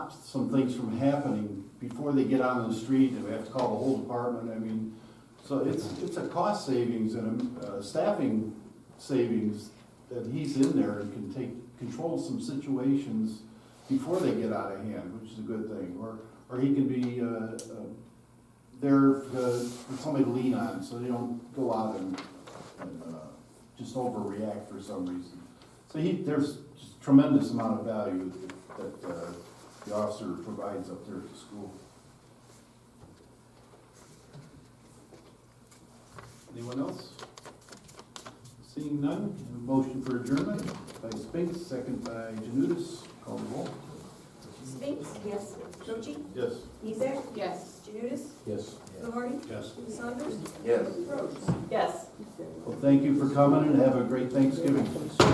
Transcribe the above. stops some things from happening before they get out on the street, and we have to call the whole department, I mean, so it's, it's a cost savings and a uh, staffing savings that he's in there and can take, control some situations before they get out of hand, which is a good thing, or, or he can be, uh, uh, there uh, for somebody to lean on, so they don't go out and, and, uh, just overreact for some reason. So he, there's just tremendous amount of value that, uh, the officer provides up there at the school. Anyone else? Seeing none, a motion for adjournment by Spinks, second by Janutus, call the roll. Spinks? Yes. Cochi? Yes. Mizek? Yes. Janutus? Yes. Fluharty? Yes. Saunders? Yes. Rhodes? Yes. Well, thank you for coming and have a great Thanksgiving.